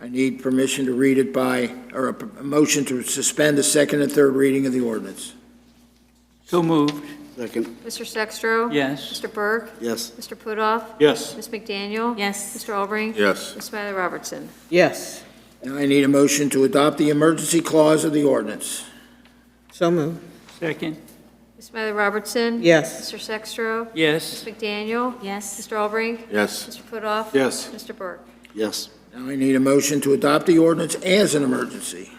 I need permission to read it by, or a p- a motion to suspend the second and third reading of the ordinance. So moved, Second. Mr. Sextro. yes. Mr. Burke. Yes. Mr. Putoff. Yes. Ms. McDaniel. yes, Mr. Albrecht. Yes. Ms. Smiley Robertson. yes, Now I need a motion to adopt the emergency clause of the ordinance. so moved, Second, Ms. Smiley Robertson. yes, Mr. Sextro. yes. Ms. McDaniel. yes, Mr. Albrecht. Yes. Mr. Putoff. Yes. Mr. Burke. Yes. Now I need a motion to adopt the ordinance as an emergency.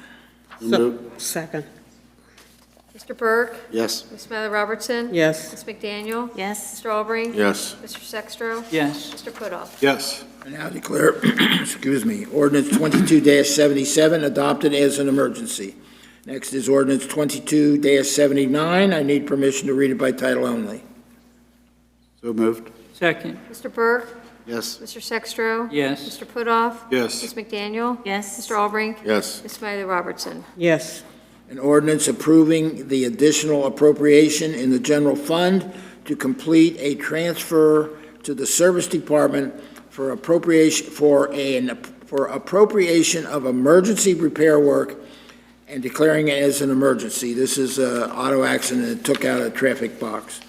Move. second, Mr. Burke. Yes. Ms. Smiley Robertson. yes, Ms. McDaniel. yes, Mr. Albrecht. Yes. Mr. Sextro. Yes, Mr. Putoff. Yes. I now declare, excuse me, ordinance twenty-two seventy-seven adopted as an emergency. Next is ordinance twenty-two seventy-nine. I need permission to read it by title only. So moved. second, Mr. Burke. Yes. Mr. Sextro. yes. Mr. Putoff. Yes. Ms. McDaniel. yes, Mr. Albrecht. Yes. Ms. Smiley Robertson. yes, An ordinance approving the additional appropriation in the general fund to complete a transfer to the service department for appropriation, for an, for appropriation of emergency repair work and declaring it as an emergency. This is a auto accident that took out a traffic box.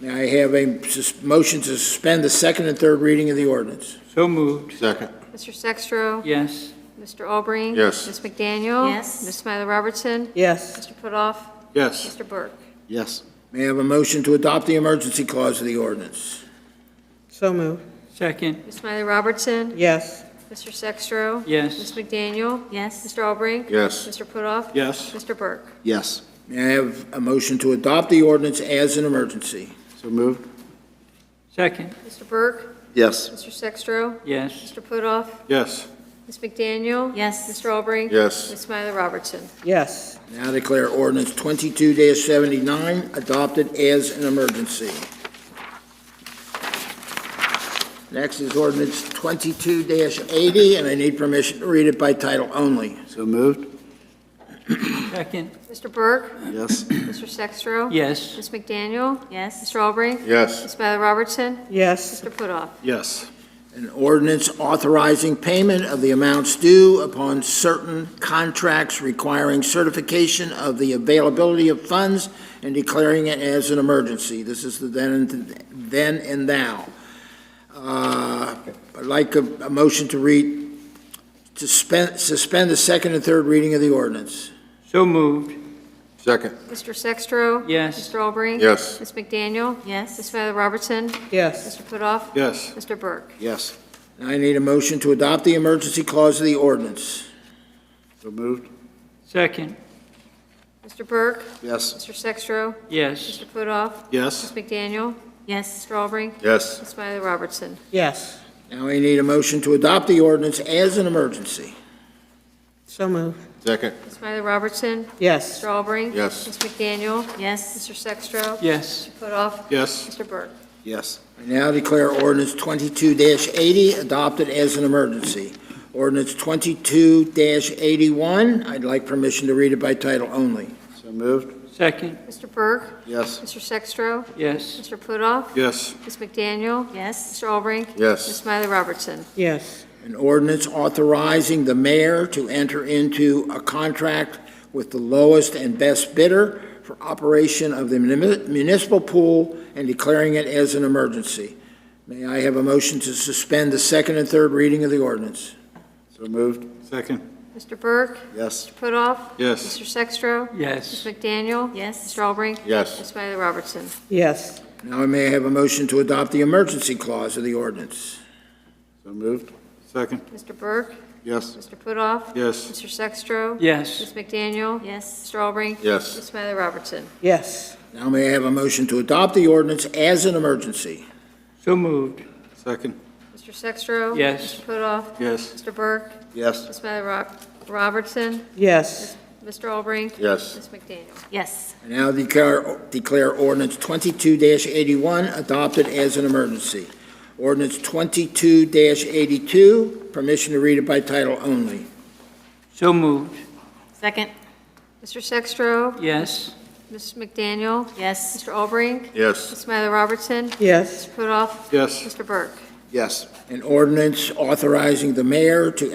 Now I have a sus- motion to suspend the second and third reading of the ordinance. So moved, Second. Mr. Sextro. yes. Mr. Albrecht. Yes. Ms. McDaniel. Yes. Ms. Smiley Robertson. yes, Mr. Putoff. Yes. Mr. Burke. Yes. May I have a motion to adopt the emergency clause of the ordinance? so moved, Second, Ms. Smiley Robertson. yes, Mr. Sextro. Ms. yes. McDaniel. yes, Mr. Albrecht. Yes. Mr. Putoff. Yes. Mr. Burke. Yes. May I have a motion to adopt the ordinance as an emergency? So moved. Second, Mr. Burke. Yes. Mr. Sextro. yes. Mr. Putoff. Yes. Ms. McDaniel. yes, Mr. Albrecht. Yes. Ms. Smiley Robertson. yes, Now declare ordinance twenty-two seventy-nine adopted as an emergency. Next is ordinance twenty-two eighty, and I need permission to read it by title only. So moved. Second, Mr. Burke. Yes. Mr. Sextro. yes. Ms. McDaniel. yes, Mr. Albrecht. Yes. Ms. Smiley Robertson. yes, Mr. Putoff. Yes. An ordinance authorizing payment of the amounts due upon certain contracts requiring certification of the availability of funds and declaring it as an emergency. This is the then and, then and now. Uh, I'd like a, a motion to read, to spend, suspend the second and third reading of the ordinance. So moved, Second. Mr. Sextro. yes. Mr. Albrecht. Yes. Ms. McDaniel. Ms. yes, Smiley Robertson. yes, Mr. Putoff. Yes. Mr. Burke. Yes. Now I need a motion to adopt the emergency clause of the ordinance. So moved. Second, Mr. Burke. Yes. Mr. Sextro. yes. Mr. Putoff. Yes. Ms. McDaniel. yes, Mr. Albrecht. Yes. Ms. Smiley Robertson. yes, Now I need a motion to adopt the ordinance as an emergency. so moved, Second. Ms. Smiley Robertson. yes, Mr. Albrecht. Yes. Ms. McDaniel. yes, Mr. Sextro. Yes, Mr. Putoff. Yes. Mr. Burke. Yes. I now declare ordinance twenty-two eighty adopted as an emergency. Ordinance twenty-two eighty-one, I'd like permission to read it by title only. So moved. second, Mr. Burke. Yes. Mr. Sextro. yes. Mr. Putoff. Yes. Ms. McDaniel. yes, Mr. Albrecht. Ms. Yes. Smiley Robertson. yes, An ordinance authorizing the mayor to enter into a contract with the lowest and best bidder for operation of the muni- municipal pool and declaring it as an emergency. May I have a motion to suspend the second and third reading of the ordinance? So moved. Second. Mr. Burke. Yes. Putoff. Yes. Mr. Sextro. Yes, Ms. McDaniel. yes, Mr. Albrecht. Yes. Ms. Smiley Robertson. yes, Now may I have a motion to adopt the emergency clause of the ordinance? So moved. Second. Mr. Burke. Yes. Mr. Putoff. Yes. Mr. Sextro. yes. Ms. McDaniel. yes, Mr. Albrecht. Yes. Ms. Smiley Robertson. yes, Now may I have a motion to adopt the ordinance as an emergency? So moved, Second. Mr. Sextro. Yes. Mr. Putoff. Yes. Mr. Burke. Yes. Ms. Smiley Rob- Robertson. yes, Mr. Albrecht. Yes. Ms. McDaniel. yes, I now declare, declare ordinance twenty-two eighty-one adopted as an emergency. Ordinance twenty-two eighty-two, permission to read it by title only. so moved, second, Mr. Sextro. yes. Ms. McDaniel. yes, Mr. Albrecht. Yes. Ms. Smiley Robertson. yes. Putoff. Yes. Mr. Burke. Yes. An ordinance authorizing the mayor to